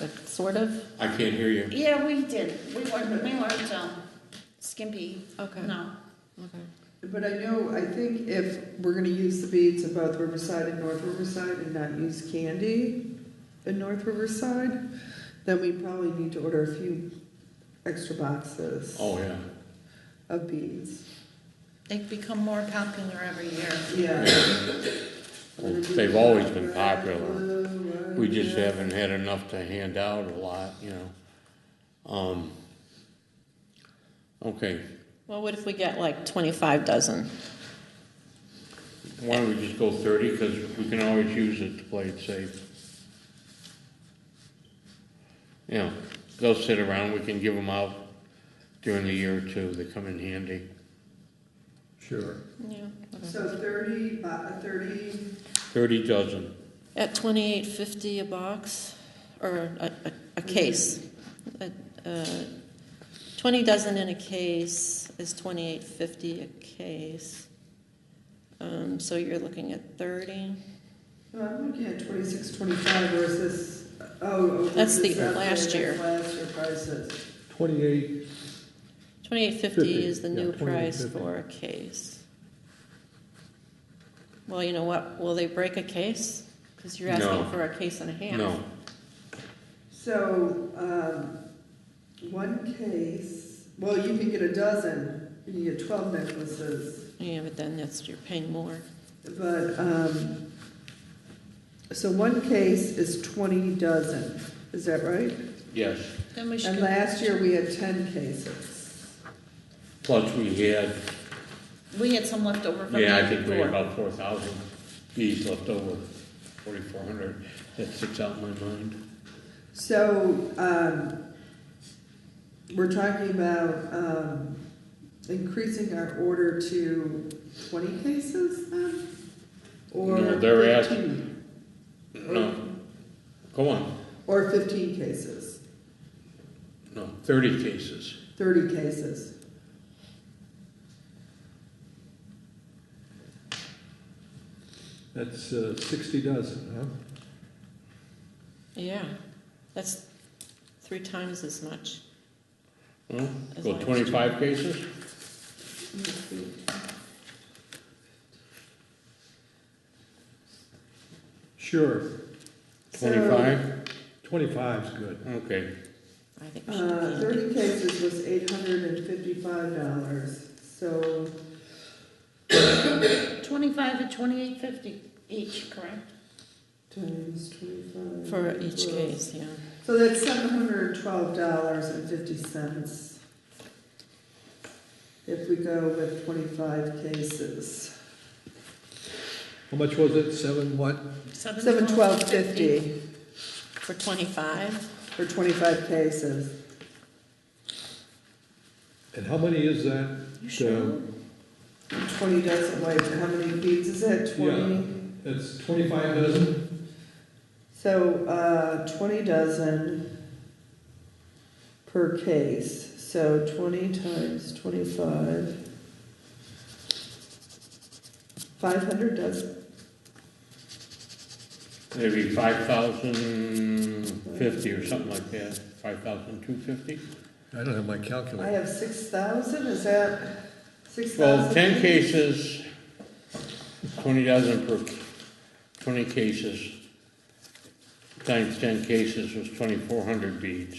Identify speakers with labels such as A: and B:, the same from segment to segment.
A: like, sort of?
B: I can't hear you.
C: Yeah, we did. We learned, we learned um, skimpy.
A: Okay.
C: No.
A: Okay.
D: But I know, I think if we're gonna use the beads of both Riverside and North Riverside and not use candy in North Riverside, then we probably need to order a few extra boxes
B: Oh, yeah.
D: of beads.
C: They become more popular every year.
D: Yeah.
B: Well, they've always been popular. We just haven't had enough to hand out a lot, you know. Um, okay,
A: Well, what if we get like twenty-five dozen?
B: why don't we just go thirty, because we can always use it to play it safe. You know, they'll sit around, we can give them out during the year or two, they come in handy.
E: Sure.
A: Yeah.
D: So thirty, bo- thirty,
B: Thirty dozen,
A: At twenty-eight fifty a box, or a, a, a case. A- uh, Twenty dozen in a case is twenty-eight fifty a case. Um, so you're looking at thirty.
D: no, I'm looking at twenty-six, twenty-five versus, oh. oh,
A: That's the
D: this is-
A: last year.
D: Last year prices.
E: Twenty-eight,
A: Twenty-eight fifty
E: Fifty,
A: is the
E: yeah,
A: new price
E: 28.50.
A: for a case. Well, you know what, will they break a case? Cause you're asking
B: No.
A: for a case and a half.
B: no,
D: So, um, one case, well, you can get a dozen, you can get twelve necklaces,
A: Yeah, but then that's, you're paying more.
D: but, um, so one case is twenty dozen, is that right?
B: yes,
C: Then we should.
D: And last year we had ten cases.
B: plus we had,
C: We had some left over from the
B: yeah, I
C: year
B: think we had
C: before.
B: about four thousand bees left over, forty-four hundred, that sticks out in my mind.
D: So, um, we're talking about, um, increasing our order to twenty cases then? Or
B: No, they're ask-
D: fifteen?
B: No, go on,
D: Or fifteen cases,
B: no, thirty cases.
D: thirty cases.
E: that's uh, sixty dozen, huh?
A: Yeah, that's three times as much.
B: Well,
A: As
B: go
A: long as-
B: twenty-five cases?
E: Sure,
B: Twenty-five?
E: twenty-five's good.
B: Okay,
A: I think we should
D: Uh,
A: be,
D: thirty cases was eight hundred and fifty-five dollars, so,
C: Twenty-five and twenty-eight fifty each, correct?
D: times twenty-five.
A: for each
D: equals-
A: case, yeah.
D: So that's seven hundred and twelve dollars and fifty cents. If we go with twenty-five cases.
E: How much was it, seven what?
D: Seven twelve fifty
A: For twenty-five,
D: for twenty-five cases.
E: And how many is that?
C: You sure?
D: Twenty dozen, wait, how many beads is that, twenty?
E: That's twenty-five dozen?
D: So, uh, twenty dozen per case, so twenty times twenty-five. Five hundred dozen,
B: maybe five thousand fifty or something like that, five thousand two fifty?
E: I don't have my
D: I
E: calculator.
D: have six thousand, is that six thousand?
B: Well, ten cases, twenty dozen per, twenty cases, times ten cases was twenty-four hundred beads.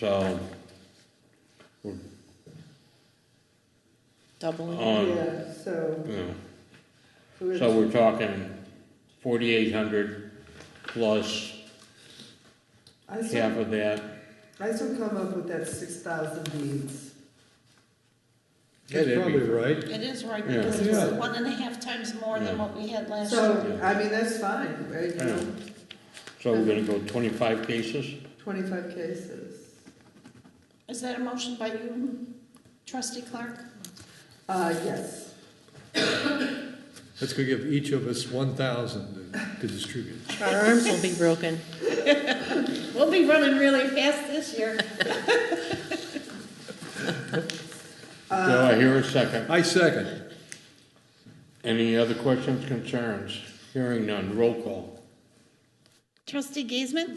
B: So,
A: doubling.
B: on,
D: Yeah, so.
B: you know,
D: so it's-
B: So we're talking forty-eight hundred plus
D: I still,
B: half of that.
D: I still come up with that six thousand beads.
E: That's
B: Yeah, that'd
E: probably
B: be-
E: right.
C: It is right,
B: Yeah.
C: because it was
E: Yeah.
C: one and a half times more than
B: Yeah.
C: what we had last year.
D: So, I mean, that's fine, right?
B: I know. So we're gonna go twenty-five cases?
D: Twenty-five cases.
C: Is that a motion by you, trustee Clark?
D: Uh, yes.
E: That's gonna give each of us one thousand to distribute.
A: Our arms will be broken.
C: We'll be running really fast this year.
B: Do I hear a second?
E: I second.
B: Any other questions, concerns? Hearing none, roll call.
C: Trustee Giesman?